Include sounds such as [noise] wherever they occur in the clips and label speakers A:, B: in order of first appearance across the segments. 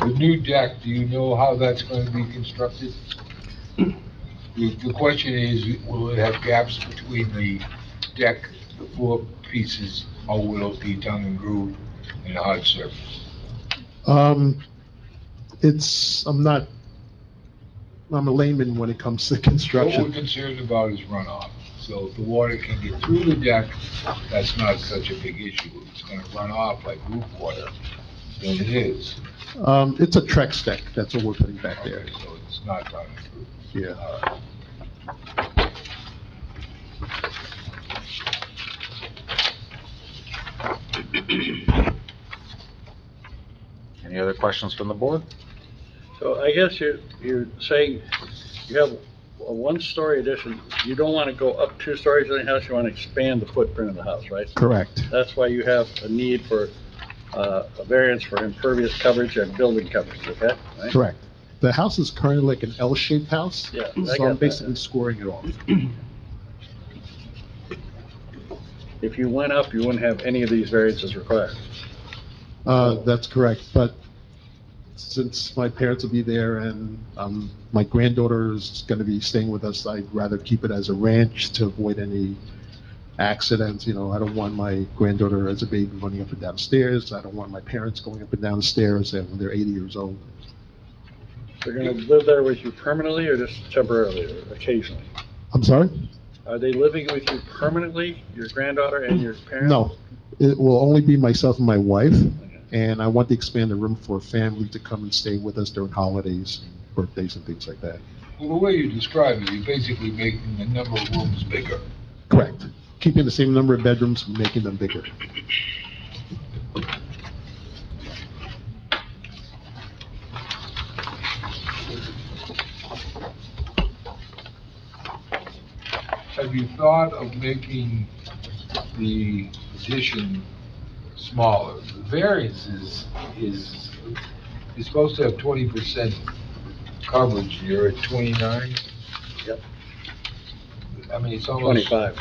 A: The new deck, do you know how that's going to be constructed? The the question is, will it have gaps between the deck, the four pieces, or will it be tongue and groove and hard surface?
B: Um, it's, I'm not, I'm a layman when it comes to [laughs]
A: What we're
B: construction.
A: concerned about is runoff. So if the water can get through the deck, that's not such a big issue. If it's going to run off like roof water, then it is.
B: Um, it's a Trex deck, that's what we're putting back there,
A: Okay, So it's not tongue and groove.
B: yeah.
C: Any other questions from the board?
D: So I guess you're, you're saying you have a one-story addition, you don't want to go up two stories in the house, you want to expand the footprint of the house, right?
B: Correct.
D: That's why you have a need for, uh, a variance for impervious coverage and building coverage, okay? Right?
B: Correct. The house is currently like an L-shaped house.
D: Yeah, I got
B: So I'm
D: that.
B: basically scoring it off.
D: If you went up, you wouldn't have any of these variances required.
B: Uh, that's correct, but since my parents will be there and, um, my granddaughter is gonna be staying with us, I'd rather keep it as a ranch to avoid any accidents, you know, I don't want my granddaughter as a baby running up and downstairs, I don't want my parents going up and downstairs and when they're eighty years old.
D: They're going to live there with you permanently or just temporarily or occasionally?
B: I'm sorry?
D: Are they living with you permanently, your granddaughter and your parents?
B: No, it will only be myself and my wife, and I want to expand the room for family to come and stay with us during holidays, birthdays and things like that.
A: Well, the way you describe it, you're basically making the number of rooms bigger.
B: Correct. Keeping the same number of bedrooms, making them bigger.
A: Have you thought of making the addition smaller? The variance is, is, you're supposed to have twenty percent coverage, you're at twenty-nine?
D: Yep.
A: I mean, it's almost.
D: 25.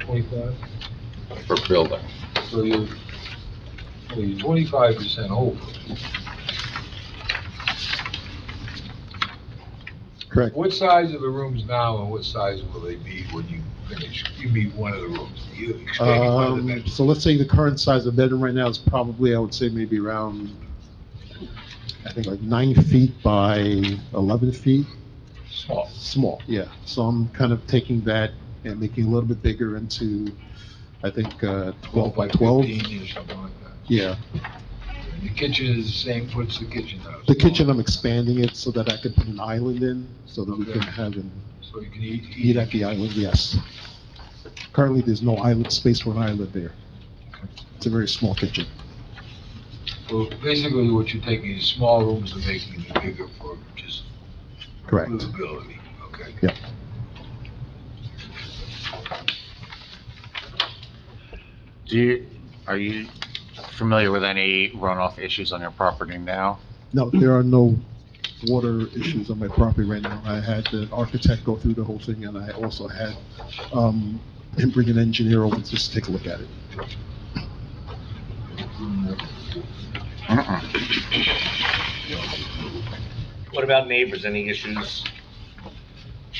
A: Twenty-five?
C: For building.
A: So you're, well, you're twenty-five percent over.
B: Correct.
A: What size are the rooms now and what size will they be when you finish? You meet one of the rooms, you expand one of the
B: Um,
A: bedrooms.
B: so let's say the current size of bedroom right now is probably, I would say, maybe around, I think like nine feet by 11 feet,
A: Small.
B: small, yeah. So I'm kind of taking that and making it a little bit bigger into, I think, uh, 12 by 12.
A: 15 or something like that.
B: Yeah,
A: And The kitchen is the same, what's the kitchen house?
B: the kitchen, um, I'm expanding it so that I could put an island in, so that we
A: Okay.
B: can have an
A: So you can eat,
B: eat
A: eat
B: at the island, yes. Currently, there's no island, space for an island there. It's a very small kitchen.
A: Well, basically what you're taking is small rooms and making them bigger for just
B: Correct.
A: livability, okay?
B: Yeah.
C: Do you, are you familiar with any runoff issues on your property now?
B: No, there are no water issues on my property right now. I had the architect go through the whole thing, and I also had um, him bring an engineer over just to take a look at it.
C: Uh-uh.
E: What about neighbors? Any issues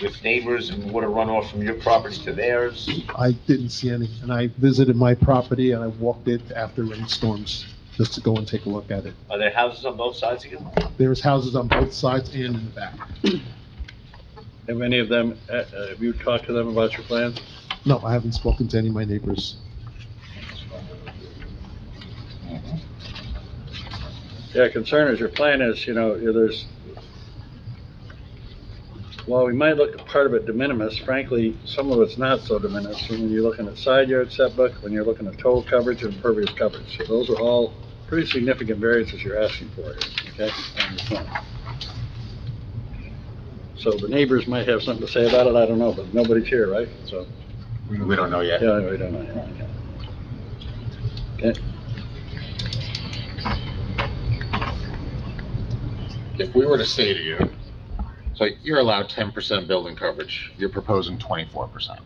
E: with neighbors and water runoff from your property to theirs?
B: I didn't see any, and I visited my property, and I walked it after rainstorms just to go and take a look at it.
E: Are there houses on both sides of you?
B: There's houses on both sides and in the back.
D: Have any of them, uh, uh, have you talked to them about your plans?
B: No, I haven't spoken to any of my neighbors.
D: Yeah, concern is your plan is, you know, there's, while we might look at part of it de minimis, frankly, some of it's not so de minimis. When you're looking at side yard setback, when you're looking at total coverage and impervious coverage. So those are all pretty significant variances you're asking for here, okay? on the plan. So the neighbors might have something to say about it, I don't know, but nobody's here, right? So,
C: We don't know yet.
D: yeah, we don't know.
F: if we were to say to you, so you're allowed ten percent building coverage,
C: You're proposing twenty-four percent.